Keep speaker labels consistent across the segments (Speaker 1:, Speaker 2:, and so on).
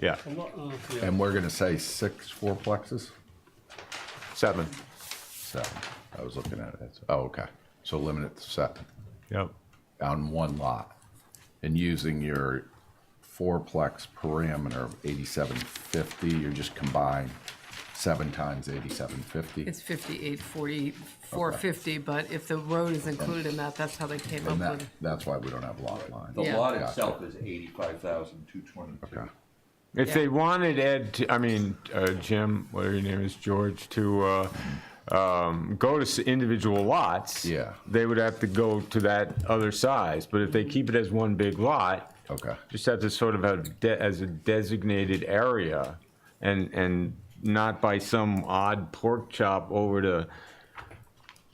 Speaker 1: Yeah,
Speaker 2: I'm not, uh, yeah,
Speaker 3: And we're gonna say six fourplexes?
Speaker 1: seven.
Speaker 3: Seven. I was looking at it. Oh, okay. So limit it to seven
Speaker 1: Yep.
Speaker 3: on one lot. And using your fourplex parameter of eighty-seven fifty, you're just combine seven times eighty-seven fifty.
Speaker 4: It's fifty-eight, forty, four fifty, but if the road is included in that, that's how they came up
Speaker 3: And that,
Speaker 4: with.
Speaker 3: that's why we don't have lot line.
Speaker 5: The
Speaker 4: Yeah.
Speaker 5: lot
Speaker 3: Gotcha.
Speaker 5: itself is eighty-five thousand, two twenty-two.
Speaker 3: Okay.
Speaker 1: If
Speaker 4: Yeah.
Speaker 1: they wanted Ed, to, I mean, uh, Jim, whatever your name is, George, to uh, um, go to s- individual lots,
Speaker 3: Yeah.
Speaker 1: they would have to go to that other size. But if they keep it as one big lot,
Speaker 3: Okay.
Speaker 1: just have to sort of have de- as a designated area, and and not by some odd pork chop over to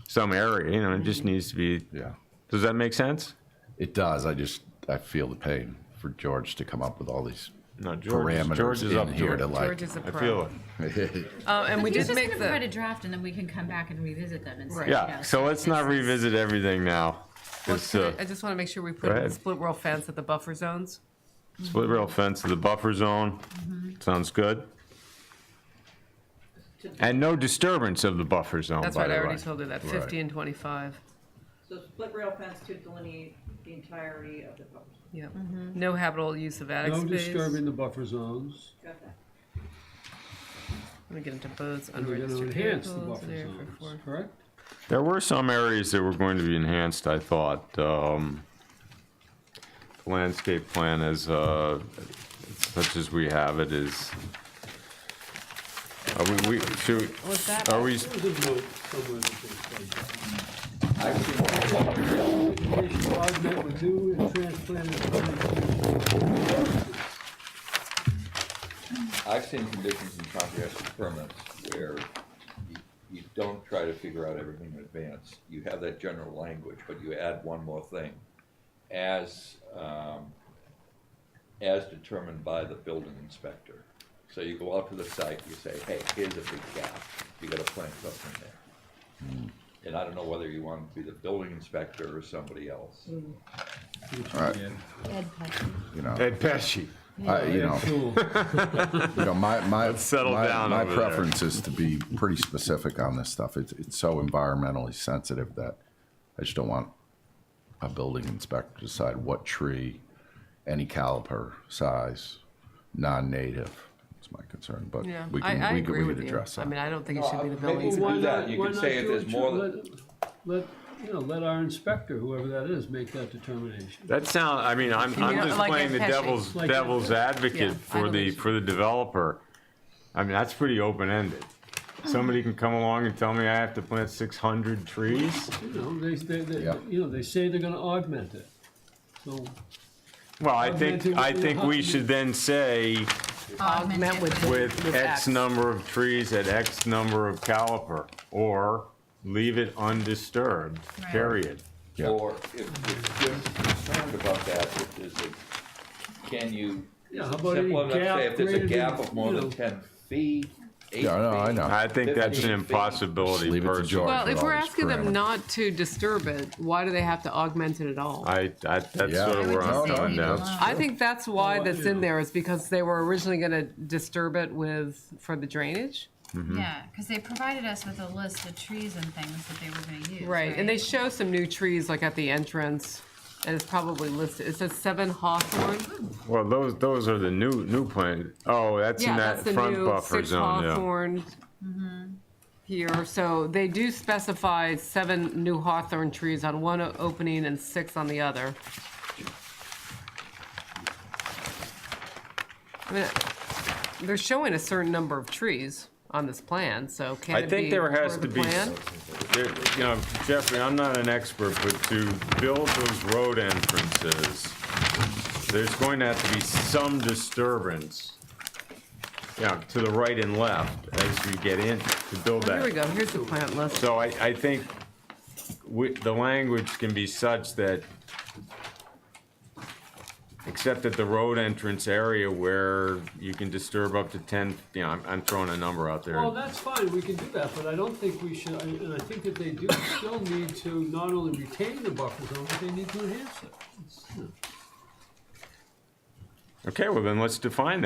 Speaker 1: some area. You know, it
Speaker 3: Mm-hmm.
Speaker 1: just needs to be.
Speaker 3: Yeah.
Speaker 1: Does that make sense?
Speaker 3: It does. I just, I feel the pain for George to come up with all these
Speaker 1: No, George. is- George
Speaker 3: parameters
Speaker 1: is up
Speaker 3: in here to
Speaker 1: to it.
Speaker 3: like.
Speaker 4: George is a
Speaker 1: I feel
Speaker 4: pro.
Speaker 1: it.
Speaker 4: Uh, and we
Speaker 6: He's
Speaker 4: did
Speaker 6: just
Speaker 4: make
Speaker 6: gonna write a
Speaker 4: the,
Speaker 6: draft and then we can come back and revisit them and say,
Speaker 4: Right.
Speaker 6: you
Speaker 1: Yeah,
Speaker 6: know,
Speaker 1: so let's not
Speaker 6: this is-
Speaker 1: revisit everything now.
Speaker 4: well,
Speaker 1: It's uh,
Speaker 4: can I- I
Speaker 1: a
Speaker 4: just wanna make sure we put in
Speaker 1: ahead.
Speaker 4: split rail fence at the buffer zones.
Speaker 1: split rail fence to the buffer zone.
Speaker 4: Mm-hmm.
Speaker 1: Sounds good. And no disturbance of the buffer zone,
Speaker 4: That's
Speaker 1: by
Speaker 4: right, I
Speaker 1: the
Speaker 4: already
Speaker 1: way.
Speaker 4: told her that,
Speaker 3: Right.
Speaker 4: fifty and twenty-five,
Speaker 7: So split rail fence to delineate the entirety of the property.
Speaker 4: yeah. No habitable use of attic
Speaker 2: no
Speaker 4: space.
Speaker 2: disturbing the buffer zones.
Speaker 7: Got that?
Speaker 4: Let me get into boats,
Speaker 2: And we're gonna
Speaker 4: unregistered
Speaker 2: enhance
Speaker 4: vehicles,
Speaker 2: the buffer
Speaker 4: area for
Speaker 2: zones,
Speaker 4: four.
Speaker 2: correct?
Speaker 1: There were some areas that were going to be enhanced, I thought. um, the Landscape plan is, uh, such as we have it is. Are we, we, should,
Speaker 4: Was that-
Speaker 1: are we,
Speaker 2: There's a note somewhere that they said.
Speaker 5: I would think
Speaker 2: Application augment, renew, and transplant the permanent.
Speaker 5: I've seen conditions in comprehensive permits where you, you don't try to figure out everything in advance. You have that general language, but you add one more thing, as, um, as determined by the building inspector. So you go out to the site, you say, hey, here's a big gap, you gotta plant something there. Hmm. And I don't know whether you want to be the building inspector or somebody else.
Speaker 6: Ed Pesci.
Speaker 3: You know,
Speaker 1: Ed Pesci?
Speaker 3: I, you know.
Speaker 2: Cool.
Speaker 3: You know, my, my,
Speaker 1: settle
Speaker 3: my,
Speaker 1: down
Speaker 3: my
Speaker 1: over there.
Speaker 3: preference is to be pretty specific on this stuff. It's, it's so environmentally sensitive that I just don't want a building inspector to decide what tree, any caliper, size, non-native. It's my concern, but
Speaker 4: Yeah,
Speaker 3: we
Speaker 4: I,
Speaker 3: can,
Speaker 4: I
Speaker 3: we can,
Speaker 4: agree
Speaker 3: we can
Speaker 4: with you,
Speaker 3: address
Speaker 4: I
Speaker 3: that.
Speaker 4: mean, I don't think it
Speaker 5: No,
Speaker 4: should be the
Speaker 5: maybe
Speaker 4: building.
Speaker 5: we-
Speaker 4: inspector.
Speaker 2: Why
Speaker 5: do
Speaker 2: not,
Speaker 5: that. You
Speaker 2: why
Speaker 5: can
Speaker 2: not
Speaker 5: say if
Speaker 2: do
Speaker 5: there's
Speaker 2: it tr-
Speaker 5: more than-
Speaker 2: let, let, you know, let our inspector, whoever that is, make that determination.
Speaker 1: That sound, I mean, I'm,
Speaker 4: You
Speaker 1: I'm
Speaker 4: know,
Speaker 1: just
Speaker 4: like
Speaker 1: playing the
Speaker 4: Ed Pesci.
Speaker 1: devil's,
Speaker 2: Like Ed
Speaker 1: devil's
Speaker 2: Pesci.
Speaker 4: Yeah,
Speaker 1: advocate
Speaker 4: I
Speaker 1: for
Speaker 4: don't
Speaker 1: the,
Speaker 4: think so.
Speaker 1: for the developer. I mean, that's pretty open-ended. Somebody can come along and tell me I have to plant six hundred trees?
Speaker 2: You know, they, they, they,
Speaker 3: Yeah.
Speaker 2: you know, they say they're gonna augment it. So,
Speaker 1: Well, I think, I think we should then say
Speaker 4: Augment with-
Speaker 1: with X
Speaker 4: X.
Speaker 1: number of trees at X number of caliper, or leave it undisturbed,
Speaker 6: Right.
Speaker 1: period.
Speaker 3: Yeah.
Speaker 5: Or if, if Jim's concerned about that, if there's a, can you,
Speaker 2: Yeah, how about any
Speaker 5: simple enough, say
Speaker 2: gap
Speaker 5: if there's a
Speaker 2: greater
Speaker 5: gap
Speaker 2: than,
Speaker 5: of more
Speaker 2: you
Speaker 5: than
Speaker 2: know-
Speaker 5: ten feet, eight feet?
Speaker 3: Yeah, I know, I know.
Speaker 1: I think that's an
Speaker 5: 15 feet.
Speaker 3: Just
Speaker 1: impossibility
Speaker 3: leave it to
Speaker 1: personally.
Speaker 3: George.
Speaker 4: Well,
Speaker 3: with
Speaker 4: if
Speaker 3: all
Speaker 4: we're
Speaker 3: these
Speaker 4: asking them
Speaker 3: parameters.
Speaker 4: not to disturb it, why do they have to augment it at all?
Speaker 1: I, I, that's
Speaker 3: Yeah.
Speaker 1: sort of
Speaker 3: I
Speaker 1: where
Speaker 3: would
Speaker 1: I'm
Speaker 3: just
Speaker 1: going
Speaker 3: leave it
Speaker 1: now.
Speaker 6: alone.
Speaker 4: I think that's why
Speaker 2: Well,
Speaker 4: that's
Speaker 2: you know.
Speaker 4: in there is because they were originally gonna disturb it with, for the drainage.
Speaker 1: Mm-hmm.
Speaker 6: Yeah, because they provided us with a list of trees and things that they were gonna use.
Speaker 4: Right, and they show some new trees like at the entrance and it's probably listed, it says seven hawthorn.
Speaker 1: Well, those, those are the new, new plant, oh, that's in
Speaker 4: Yeah,
Speaker 1: that
Speaker 4: that's the
Speaker 1: front
Speaker 4: new
Speaker 1: buffer
Speaker 4: six
Speaker 1: zone, yeah.
Speaker 4: hawthorn here, so they do specify seven new hawthorn trees on one o- opening and six on the other. I mean, They're showing a certain number of trees on this plan, so can
Speaker 1: I
Speaker 4: it be?
Speaker 1: think there has
Speaker 4: part
Speaker 1: to
Speaker 4: of the
Speaker 1: be
Speaker 4: plan?
Speaker 1: There- You know, Jeffrey, I'm not an expert, but to build those road entrances, there's going to have to be some disturbance, you know, to the right and left as you get in to build
Speaker 4: Oh, Here we
Speaker 1: that.
Speaker 4: go, here's the plant list.
Speaker 1: So I, I think we, the language can be such that, except at the road entrance area where you can disturb up to ten, you know, I'm, I'm throwing a number out there.
Speaker 2: Well, that's fine, we can do that, but I don't think we should, and I think that they do still need to not only retain the buffer zone, but they need to enhance it. It's, you know.
Speaker 1: Okay, well then let's define that.